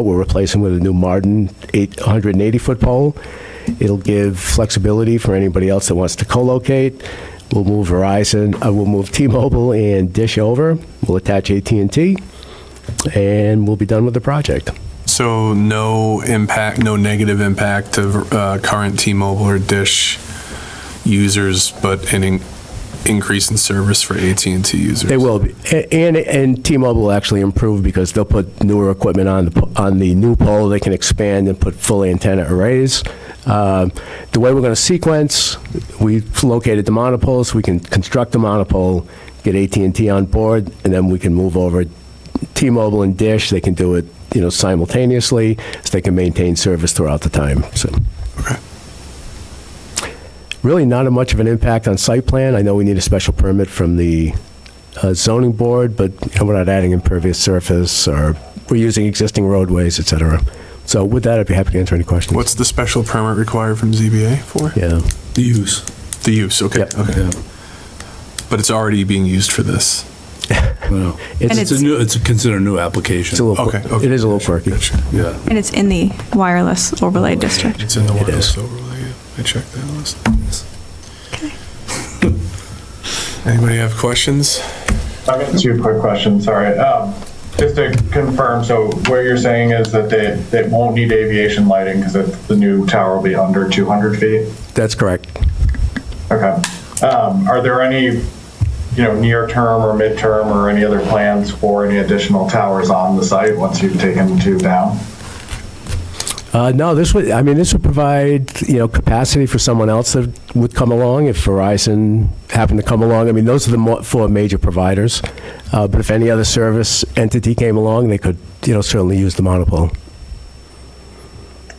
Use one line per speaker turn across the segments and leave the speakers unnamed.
We're replacing with a new Martin 880-foot pole. It'll give flexibility for anybody else that wants to co-locate. We'll move Verizon, uh, we'll move T-Mobile and Dish over. We'll attach at and T, and we'll be done with the project.
So no impact, no negative impact to uh, current T-Mobile or Dish users, but an in- increase in service for at and T users?
They will, be. A- and, and T-Mobile will actually improve because they'll put newer equipment on the, po- on the new pole, they can expand and put full antenna arrays. Um, The way we're going to sequence, we've located the monopoles, we can construct the monopole, get at and T on board, and then we can move over T-Mobile and Dish, they can do it, you know, simultaneously, so they can maintain service throughout the time, so.
Okay.
Really not a much of an impact on site plan. I know we need a special permit from the uh, zoning board, but you know, we're not adding impervious surface, or we're using existing roadways, et cetera. So with that, I'd be happy to answer any questions.
What's the special permit required from ZBA for?
Yeah,
The use.
The use, okay,
Yep.
okay. But it's already being used for this.
Well,
It's-
It's a new, it's a considered new application.
it's a little,
Okay, okay.
it is a little quirky.
Yeah.
And it's in the wireless overlay district.
It's in the
It is.
wireless overlay, yeah. I checked that last. Anybody have questions?
I got two quick questions, sorry. Um, Just to confirm, so what you're saying is that they, they won't need aviation lighting because the new tower will be under 200 feet?
That's correct.
Okay. Um, Are there any, you know, near-term or midterm or any other plans for any additional towers on the site once you've taken two down?
Uh, No, this would, I mean, this would provide, you know, capacity for someone else that would come along if Verizon happened to come along. I mean, those are the mo- four major providers. Uh, But if any other service entity came along, they could, you know, certainly use the monopole.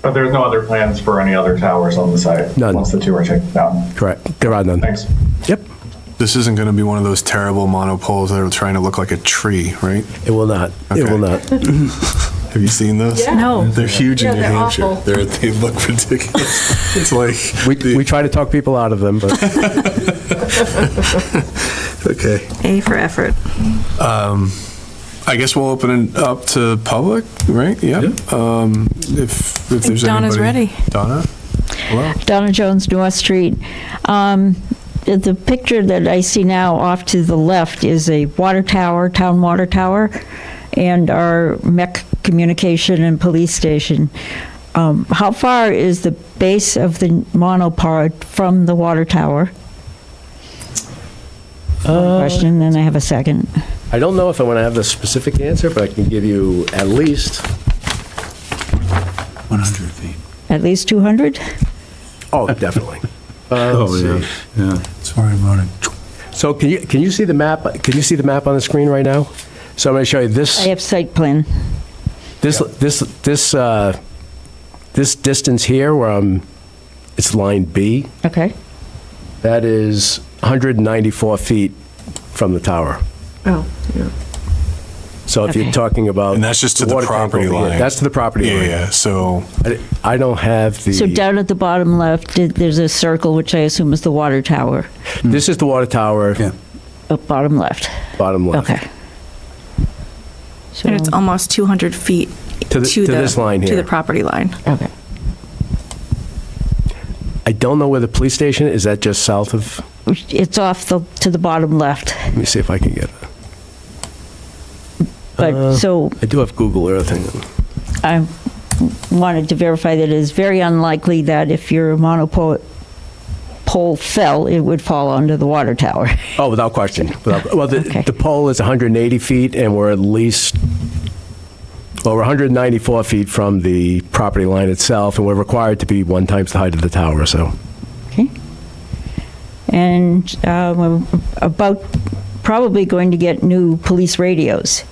But there's no other plans for any other towers on the site?
None.
Once the two are taken down?
Correct. There are none.
Thanks.
Yep.
This isn't going to be one of those terrible monopoles that are trying to look like a tree, right?
It will not. It will not.
Have you seen those?
Yeah. No.
They're huge
Yeah,
in New
they're
Hampshire.
awful.
They're, they look ridiculous. it's like
We,
the-
we try to talk people out of them, but
okay.
A for effort.
I guess we'll open it up to public, right? Yep. Um, if if there's
Donna's
anybody,
ready.
Donna. Hello.
Donna Jones, North Street. Um, The the picture that I see now off to the left is a water tower, town water tower, and our MEC communication and police station. Um, How far is the base of the monopod from the water tower? One Question, and I have a second.
I don't know if I want to have the specific answer, but I can give you at least.
100 feet.
At least 200?
Oh, definitely.
Oh, yeah, yeah. Sorry, I'm running.
Um, So can you, can you see the map? Can you see the map on the screen right now? So I'm going to show you
I
this,
have site plan.
this, this, this, uh, this distance here where I'm, it's line B,
Okay.
that is 194 feet from the tower.
Oh, yeah.
So if you're
Okay.
talking about.
And that's just to the
water tank
property
over here,
line.
That's to the property
Yeah,
line.
yeah. So
I I don't have the.
So down at the bottom left, th- there's a circle, which I assume is the water tower,
Hmm. This is the water tower,
Yeah.
up bottom left.
bottom left.
Okay. So,
And it's almost 200 feet
To
to
the-
the.
to this line
To
here.
the property line.
okay.
I don't know where the police station is. Is that just south of?
It's off the, to the bottom left,
Let me see if I can get it.
but, so
I do have Google Earth. hang on.
I wanted to verify that it is very unlikely that if your monopole pole fell, it would fall onto the water tower.
Oh, without question. Without, well, the,
Okay.
the pole is 180 feet, and we're at least well, we're 194 feet from the property line itself, and we're required to be one times the height of the tower. So,
Okay. And uh, we're about probably going to get new police radios.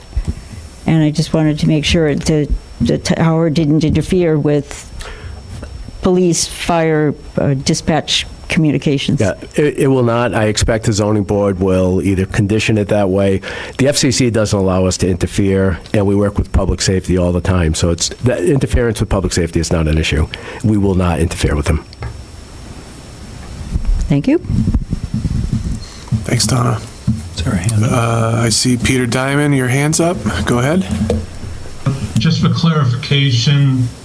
And I just wanted to make sure that the tower didn't interfere with police, fire, uh, dispatch communications.
yeah, it, it will not. I expect the zoning board will either condition it that way. The FCC doesn't allow us to interfere, and we work with public safety all the time. So, it's that interference with public safety is not an issue. We will not interfere with them.
Thank you.
thanks, Donna.
Sorry.
Uh, I see Peter Diamond. Your hands up. Go ahead.
Just for clarification,